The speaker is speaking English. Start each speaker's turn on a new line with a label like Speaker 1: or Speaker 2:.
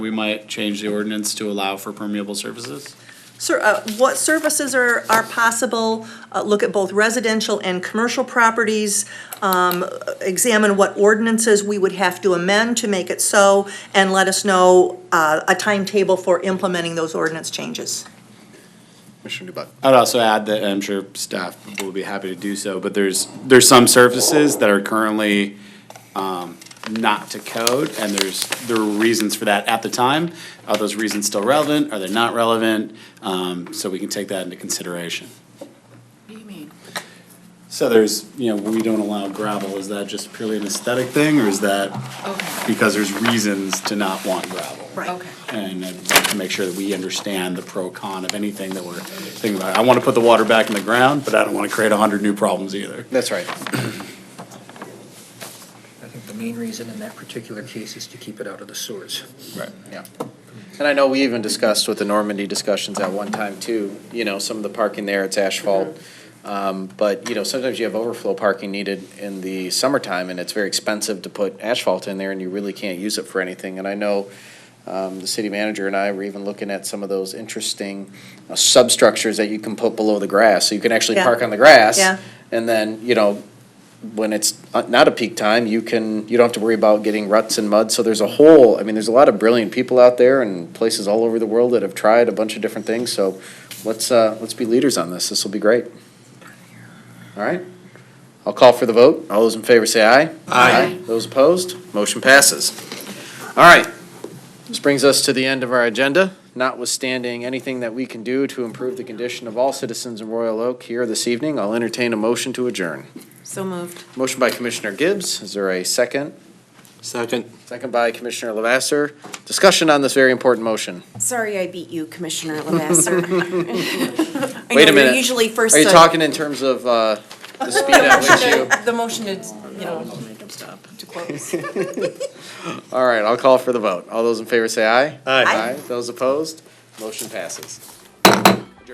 Speaker 1: We might change the ordinance to allow for permeable surfaces?
Speaker 2: Sir, uh, what services are, are possible? Uh, look at both residential and commercial properties. Um, examine what ordinances we would have to amend to make it so, and let us know, uh, a timetable for implementing those ordinance changes.
Speaker 3: Commissioner Dubak.
Speaker 1: I'd also add that, and I'm sure staff will be happy to do so, but there's, there's some surfaces that are currently um, not to code, and there's, there were reasons for that at the time. Are those reasons still relevant? Are they not relevant? Um, So we can take that into consideration.
Speaker 4: What do you mean?
Speaker 1: So there's, you know, we don't allow gravel. Is that just purely an aesthetic thing, or is that
Speaker 4: Okay,
Speaker 1: because there's reasons to not want gravel?
Speaker 2: Right.
Speaker 4: okay.
Speaker 1: And I'd like to make sure that we understand the pro con of anything that we're thinking about. I want to put the water back in the ground, but I don't want to create a hundred new problems either.
Speaker 3: That's right.
Speaker 5: I think the main reason in that particular case is to keep it out of the sewers.
Speaker 1: Right.
Speaker 3: Yeah. And I know we even discussed with the Normandy discussions at one time too, you know, some of the parking there, it's asphalt. Um, but, you know, sometimes you have overflow parking needed in the summertime and it's very expensive to put asphalt in there and you really can't use it for anything. And I know, um, the city manager and I were even looking at some of those interesting uh, substructures that you can put below the grass. So you can actually
Speaker 2: Yeah.
Speaker 3: park on the grass.
Speaker 2: Yeah.
Speaker 3: And then, you know, when it's uh, not a peak time, you can, you don't have to worry about getting ruts and mud. So there's a whole, I mean, there's a lot of brilliant people out there and places all over the world that have tried a bunch of different things. So let's, uh, let's be leaders on this. This will be great. All right. I'll call for the vote. All those in favor say aye.
Speaker 4: Aye.
Speaker 3: Those opposed, motion passes. All right. This brings us to the end of our agenda. Notwithstanding anything that we can do to improve the condition of all citizens in Royal Oak here this evening, I'll entertain a motion to adjourn.
Speaker 4: So moved.
Speaker 3: Motion by Commissioner Gibbs. Is there a second?
Speaker 5: Second.
Speaker 3: Second by Commissioner Lavasser. Discussion on this very important motion.
Speaker 4: Sorry I beat you, Commissioner Lavasser. I
Speaker 3: Wait a
Speaker 4: know you're
Speaker 3: minute.
Speaker 4: Usually first.
Speaker 3: Are you
Speaker 4: to-
Speaker 3: talking in terms of uh, the speed at which you?
Speaker 4: The motion is, you know, to close.
Speaker 3: All right, I'll call for the vote. All those in favor say aye.
Speaker 2: Aye.
Speaker 3: Those opposed? Motion passes.